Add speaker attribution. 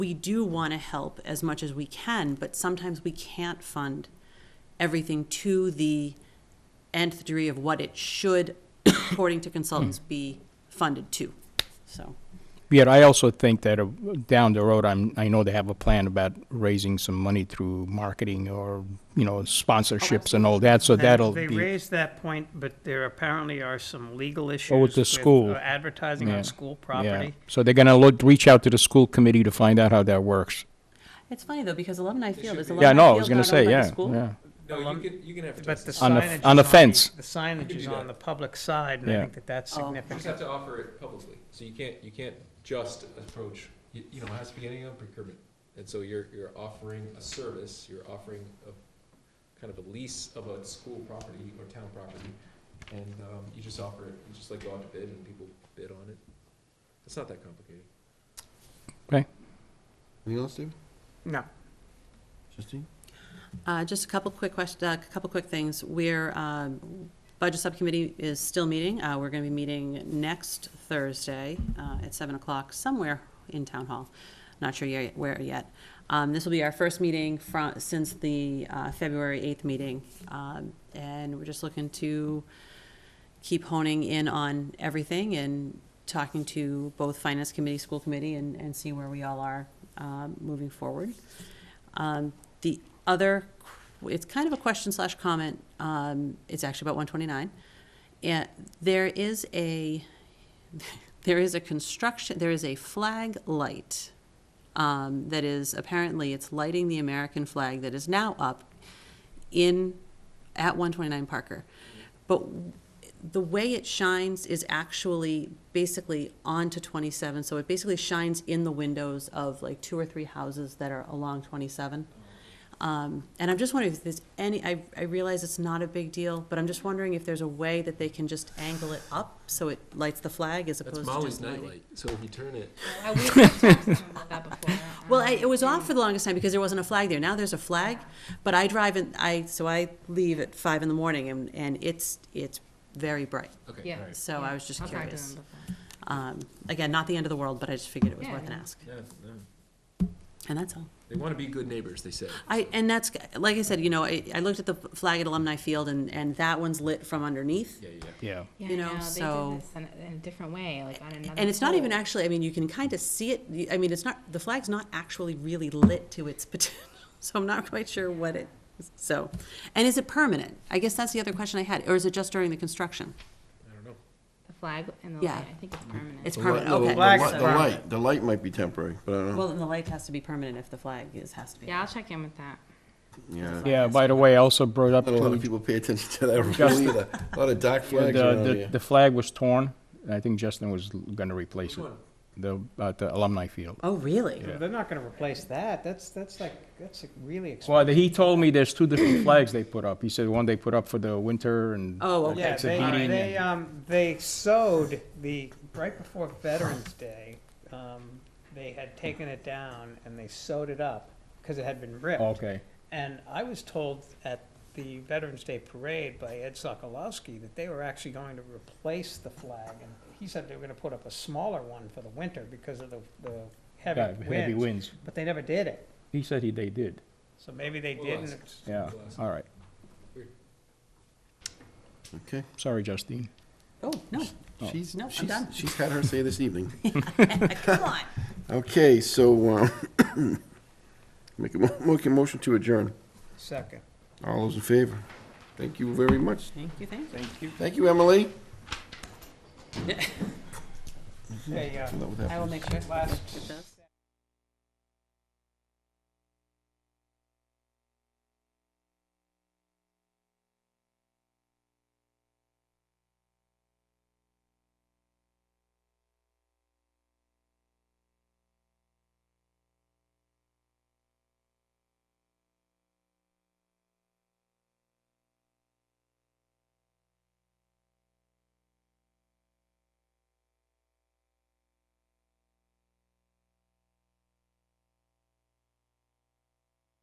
Speaker 1: we do want to help as much as we can, but sometimes we can't fund everything to the nth degree of what it should, according to consultants,
Speaker 2: Hmm.
Speaker 1: be funded to, so.
Speaker 2: Yet I also think that uh, down the road, I'm, I know they have a plan about raising some money through marketing or, you know, sponsorships and all that, so
Speaker 3: They-
Speaker 2: that'll
Speaker 3: They
Speaker 2: be.
Speaker 3: raised that point, but there apparently are some legal issues.
Speaker 2: Oh, with the
Speaker 3: uh,
Speaker 2: school.
Speaker 3: Advertising
Speaker 2: Yeah.
Speaker 3: on school
Speaker 2: Yeah,
Speaker 3: property.
Speaker 2: so they're gonna look, reach out to the school committee to find out how that works.
Speaker 1: It's funny, though, because Alumni Field is
Speaker 4: should
Speaker 1: Alumni
Speaker 2: Yeah,
Speaker 1: Field
Speaker 2: no, I was gonna
Speaker 1: not owned
Speaker 2: say,
Speaker 1: by the
Speaker 2: yeah,
Speaker 1: school?
Speaker 2: yeah.
Speaker 4: No,
Speaker 3: Alum-
Speaker 4: you can, you can
Speaker 3: But the
Speaker 4: advertise.
Speaker 2: On the-
Speaker 3: signage. is
Speaker 2: on the fence.
Speaker 3: The signage is
Speaker 4: do that.
Speaker 3: on the public side, and
Speaker 2: Yeah.
Speaker 3: I think that that's
Speaker 1: Oh.
Speaker 4: You just have
Speaker 3: significant.
Speaker 4: to offer it publicly, so you can't, you can't just approach, you, you know, it has to be any on procurement. And so you're, you're offering a service, you're offering a, kind of a lease of a school property or town property, and, um, you just offer it, you just like go out to bid and people bid on it. It's not that complicated.
Speaker 5: Anything else, David?
Speaker 3: No,
Speaker 5: Justine?
Speaker 1: Uh, Just a couple quick questions, a couple quick things. We're, um, Budget Subcommittee is still meeting. Uh, We're going to be meeting next Thursday uh, at 7 o'clock somewhere in Town Hall. Not sure yet- where yet. Um, This will be our first meeting from, since the uh, February 8th meeting. Um, And we're just looking to keep honing in on everything and talking to both Finance Committee, School Committee, and, and see where we all are um, moving forward. Um, The other, qu- it's kind of a question slash comment, um, it's actually about 129. And there is a, there is a construction, there is a flag light um, that is, apparently, it's lighting the American flag that is now up in, at 129 Parker. But the way it shines is actually basically onto 27, so it basically shines in the windows of like two or three houses that are along 27. Um, And I'm just wondering if there's any, I, I realize it's not a big deal, but I'm just wondering if there's a way that they can just angle it up so it lights the flag as opposed
Speaker 4: That's
Speaker 1: to
Speaker 4: Molly's
Speaker 1: just lighting.
Speaker 4: nightlight, so if you turn it,
Speaker 6: I wish I talked to him about that before.
Speaker 1: Well, I, it was off for the longest time because there wasn't a flag there. Now there's a flag, but I drive and I, so I leave at five in the morning and, and it's, it's very bright.
Speaker 4: okay.
Speaker 6: Yeah.
Speaker 4: all right.
Speaker 1: So I was just
Speaker 6: I'll talk to
Speaker 1: curious.
Speaker 6: him before.
Speaker 1: Um, again, not the end of the world, but I just figured it was
Speaker 6: Yeah,
Speaker 1: worth an
Speaker 6: yeah.
Speaker 1: ask.
Speaker 4: Yeah, no,
Speaker 1: And that's all.
Speaker 4: they wanna be good neighbors, they say.
Speaker 1: I, and that's, like I said, you know, I, I looked at the flag at Alumni Field and, and that one's lit from underneath.
Speaker 4: Yeah, yeah, yeah.
Speaker 2: Yeah.
Speaker 6: Yeah,
Speaker 1: You know,
Speaker 6: no, they did
Speaker 1: so-
Speaker 6: this in a- In a different way, like on another.
Speaker 1: And it's not even
Speaker 6: pole.
Speaker 1: actually, I mean, you can kind of see it. I mean, it's not, the flag's not actually really lit to its potential. So I'm not quite sure what it, so. And is it permanent? I guess that's the other question I had. Or is it just during the construction?
Speaker 4: I don't know.
Speaker 6: The flag and the,
Speaker 1: Yeah.
Speaker 6: light, I think
Speaker 4: Mm-hmm.
Speaker 6: it's permanent.
Speaker 1: It's
Speaker 5: The light-
Speaker 1: permanent,
Speaker 5: no, the
Speaker 1: okay.
Speaker 3: Flag
Speaker 5: light-
Speaker 3: is
Speaker 5: The
Speaker 3: permanent.
Speaker 5: light, the light might be temporary, but I don't know.
Speaker 1: Well, then the light has to be permanent if the flag is, has to be.
Speaker 6: Yeah, I'll check in with that.
Speaker 5: Yeah.
Speaker 2: Yeah, by the way, I also brought up
Speaker 5: Not a lot of
Speaker 2: to,
Speaker 5: people pay attention to that really either. A lot of dark
Speaker 2: the,
Speaker 5: flags around
Speaker 2: the,
Speaker 5: here.
Speaker 2: the flag was torn, and I think Justin was gonna replace
Speaker 4: Which
Speaker 2: it,
Speaker 4: one?
Speaker 2: the, at the alumni field.
Speaker 1: Oh, really?
Speaker 3: they're not gonna replace that. That's, that's like, that's like really expensive.
Speaker 2: Well, he told me there's two different flags they put up. He said one they put up for the winter and.
Speaker 1: Oh, okay.
Speaker 3: Yeah,
Speaker 2: It's a
Speaker 3: they,
Speaker 2: heating
Speaker 3: they,
Speaker 2: and-
Speaker 3: um, they sewed the, right before Veterans Day, um, they had taken it down and they sewed it up because it had been ripped.
Speaker 2: Okay,
Speaker 3: And I was told at the Veterans Day Parade by Ed Sokolowski that they were actually going to replace the flag. And he said they were gonna put up a smaller one for the winter because of the, the
Speaker 2: yeah,
Speaker 3: heavy
Speaker 2: heavy
Speaker 3: winds.
Speaker 2: winds.
Speaker 3: But they never did it.
Speaker 2: He said he, they did,
Speaker 3: So maybe they
Speaker 4: We'll ask.
Speaker 3: didn't.
Speaker 2: yeah,
Speaker 4: We'll ask.
Speaker 2: all right.
Speaker 5: Okay.
Speaker 2: Sorry, Justine.
Speaker 1: Oh, no,
Speaker 5: She's,
Speaker 1: No, I'm
Speaker 5: she's,
Speaker 1: done.
Speaker 5: she's had her say this evening.
Speaker 1: come on.
Speaker 5: Okay, so, um, make a, mo- make a motion to adjourn.
Speaker 3: Second.
Speaker 5: All those in favor? Thank you very much.
Speaker 1: Thank you, thank you.
Speaker 5: Thank you, Emily.
Speaker 3: They, uh,
Speaker 5: That would happen.
Speaker 1: I will make sure.
Speaker 3: Last
Speaker 1: It does.